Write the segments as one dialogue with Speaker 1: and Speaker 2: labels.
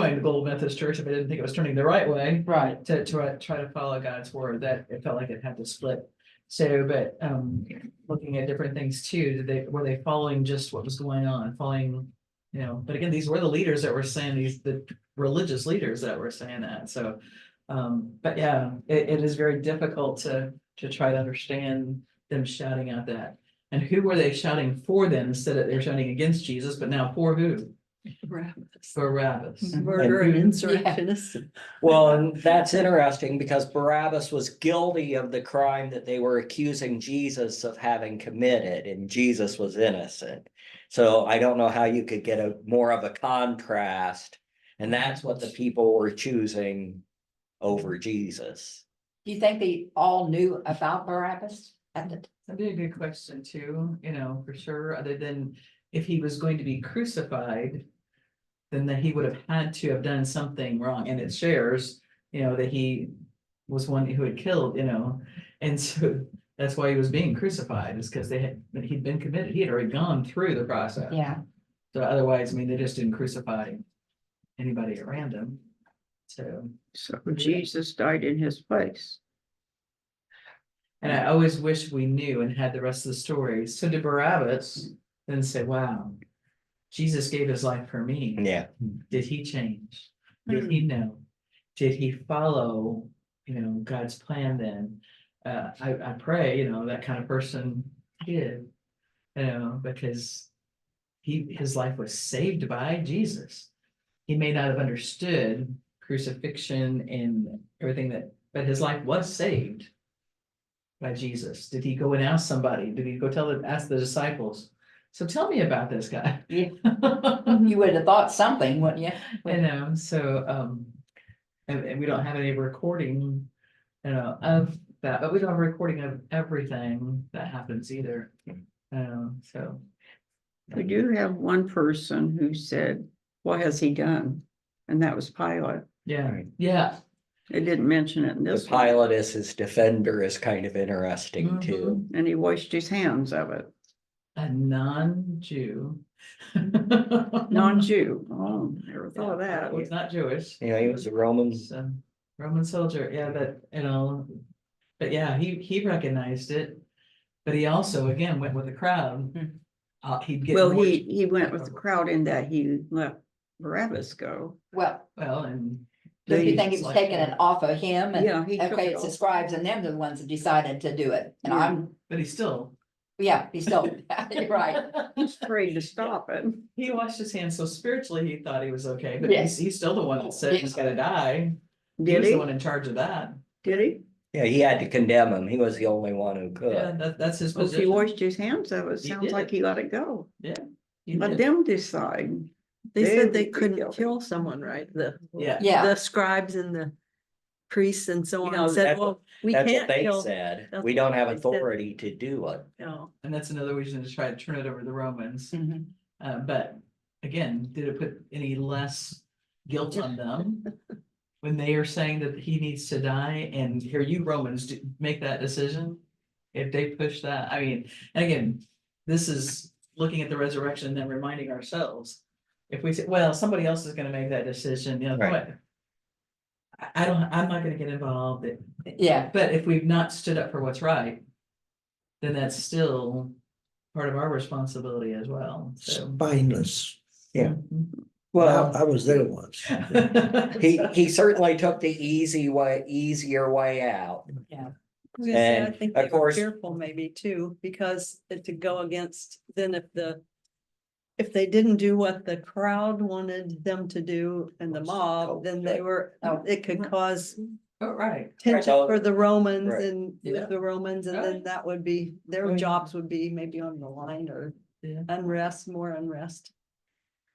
Speaker 1: going to Global Methodist Church if I didn't think it was turning the right way
Speaker 2: Right,
Speaker 1: to, to try to follow God's word, that it felt like it had to split. So, but, um, looking at different things too, did they, were they following just what was going on, following, you know, but again, these were the leaders that were saying these, the religious leaders that were saying that, so. Um, but yeah, it, it is very difficult to, to try to understand them shouting out that. And who were they shouting for then, instead of they're shouting against Jesus, but now for who? For Barabbas.
Speaker 2: Murder
Speaker 3: Murder
Speaker 2: and
Speaker 3: and insurrectionists.
Speaker 4: Well, and that's interesting because Barabbas was guilty of the crime that they were accusing Jesus of having committed and Jesus was innocent. So I don't know how you could get a more of a contrast. And that's what the people were choosing over Jesus.
Speaker 3: Do you think they all knew about Barabbas at the?
Speaker 1: That'd be a good question too, you know, for sure, other than if he was going to be crucified. Then that he would have had to have done something wrong and it shares, you know, that he was one who had killed, you know. And so that's why he was being crucified is because they had, that he'd been committed, he had already gone through the process.
Speaker 3: Yeah,
Speaker 1: So otherwise, I mean, they just didn't crucify anybody at random. So.
Speaker 5: So Jesus died in his place.
Speaker 1: And I always wish we knew and had the rest of the story. So did Barabbas then say, wow, Jesus gave his life for me.
Speaker 4: Yeah,
Speaker 1: Did he change? Did he know? Did he follow, you know, God's plan then? Uh, I, I pray, you know, that kind of person did, you know, because he, his life was saved by Jesus. He may not have understood crucifixion and everything that, but his life was saved by Jesus? Did he go and ask somebody? Did he go tell the ask the disciples? So tell me about this guy.
Speaker 3: Yeah.
Speaker 1: I
Speaker 3: you would have thought something, wouldn't you?
Speaker 1: know, so um, and, and we don't have any recording, you know, of that, but we don't have a recording of everything that happens either. Um, so,
Speaker 5: We do have one person who said, what has he done? And that was Pilate.
Speaker 1: yeah,
Speaker 4: Right.
Speaker 1: yeah,
Speaker 5: It didn't mention it in
Speaker 4: the
Speaker 5: this one,
Speaker 4: pilot as his defender is kind of
Speaker 6: Mm-hmm.
Speaker 4: interesting too.
Speaker 5: and he washed his hands of it.
Speaker 1: a non-Jew.
Speaker 5: Non-Jew. Oh, never thought of that.
Speaker 1: Was not Jewish.
Speaker 4: You know, he was a Roman
Speaker 1: was, um, Roman soldier, yeah, but, you know, but yeah, he, he recognized it. But he also, again, went with the crowd.
Speaker 3: Hmm.
Speaker 1: Uh, he'd get.
Speaker 5: Well,
Speaker 1: more-
Speaker 5: he, he went with the crowd in that he let Barabbas go.
Speaker 3: Well,
Speaker 1: Well, and.
Speaker 3: do you
Speaker 1: they-
Speaker 3: think it was taking it off of him and,
Speaker 5: Yeah, he took
Speaker 3: okay,
Speaker 5: it
Speaker 3: it's the
Speaker 5: off.
Speaker 3: scribes and them, they're the ones that decided to do it. And
Speaker 5: Yeah.
Speaker 3: I'm,
Speaker 1: But he still.
Speaker 3: yeah, he's still, you're right.
Speaker 5: He's afraid to stop it.
Speaker 1: He washed his hands, so spiritually he thought he was okay, but he's,
Speaker 3: Yes.
Speaker 1: he's still the one that said he's
Speaker 3: Yes.
Speaker 1: gotta die. He
Speaker 5: Did
Speaker 1: was the
Speaker 5: he?
Speaker 1: one in charge of that.
Speaker 5: Did he?
Speaker 4: Yeah, he had to condemn him. He was the only one who
Speaker 1: Yeah,
Speaker 4: could.
Speaker 1: that, that's his
Speaker 5: Well, he
Speaker 1: position.
Speaker 5: washed his hands of it.
Speaker 1: He
Speaker 5: Sounds like
Speaker 1: did.
Speaker 5: he let it go.
Speaker 1: He
Speaker 5: Let
Speaker 1: did.
Speaker 5: them decide.
Speaker 6: They
Speaker 5: They
Speaker 6: said they
Speaker 5: would be
Speaker 6: couldn't
Speaker 5: guilty.
Speaker 6: kill someone, right? The,
Speaker 1: Yeah,
Speaker 3: Yeah,
Speaker 6: the scribes and the priests and so
Speaker 4: know,
Speaker 6: on said,
Speaker 4: that's what-
Speaker 6: well, we
Speaker 4: That's what
Speaker 6: can't
Speaker 4: they
Speaker 6: kill.
Speaker 4: said.
Speaker 6: that's
Speaker 4: We don't have
Speaker 6: what they said.
Speaker 4: authority to do it.
Speaker 6: No,
Speaker 1: and that's another reason to try to turn it over to the Romans.
Speaker 3: Mhm.
Speaker 1: Uh, but again, did it put any less guilt on them? When they are saying that he needs to die and here you Romans do make that decision? If they push that, I mean, and again, this is looking at the resurrection and then reminding ourselves. If we say, well, somebody else is gonna make that decision, you know,
Speaker 4: Right.
Speaker 1: what? I, I don't, I'm not gonna get involved. It-
Speaker 3: yeah,
Speaker 1: But if we've not stood up for what's right, then that's still part of our responsibility as well, so. Mm-hmm.
Speaker 7: spineless.
Speaker 4: Yeah.
Speaker 7: Well, I I was there once.
Speaker 4: He, he certainly took the easy way, easier way out.
Speaker 6: I was gonna say, I
Speaker 4: And, of
Speaker 6: think they were
Speaker 4: course-
Speaker 6: fearful maybe too, because it- to go against, then if the. If they didn't do what the crowd wanted them to do and the mob, then they were,
Speaker 3: Oh.
Speaker 6: it could cause
Speaker 1: Oh, right.
Speaker 6: tension for the Romans
Speaker 4: Right.
Speaker 6: and
Speaker 1: Yeah.
Speaker 6: with the Romans, and then
Speaker 1: Right.
Speaker 6: that would be,
Speaker 1: Oh,
Speaker 6: their
Speaker 1: yeah.
Speaker 6: jobs would be maybe on the line or
Speaker 1: Yeah.
Speaker 6: unrest, more unrest.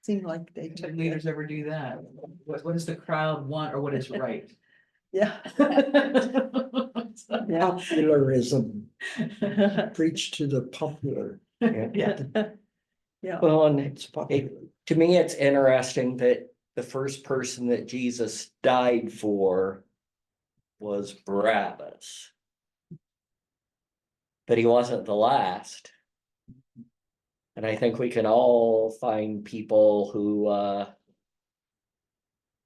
Speaker 6: Seemed like they
Speaker 1: Did
Speaker 6: took it,
Speaker 1: leaders ever do that? What, what does the crowd want or what is right?
Speaker 6: yeah.
Speaker 5: Yeah.
Speaker 7: Popularism, preach to the popular.
Speaker 1: Yeah,
Speaker 6: Yeah.
Speaker 4: Well, and
Speaker 7: It's popular.
Speaker 4: to me, it's interesting that the first person that Jesus died for was Barabbas. But he wasn't the last. And I think we can all find people who, uh,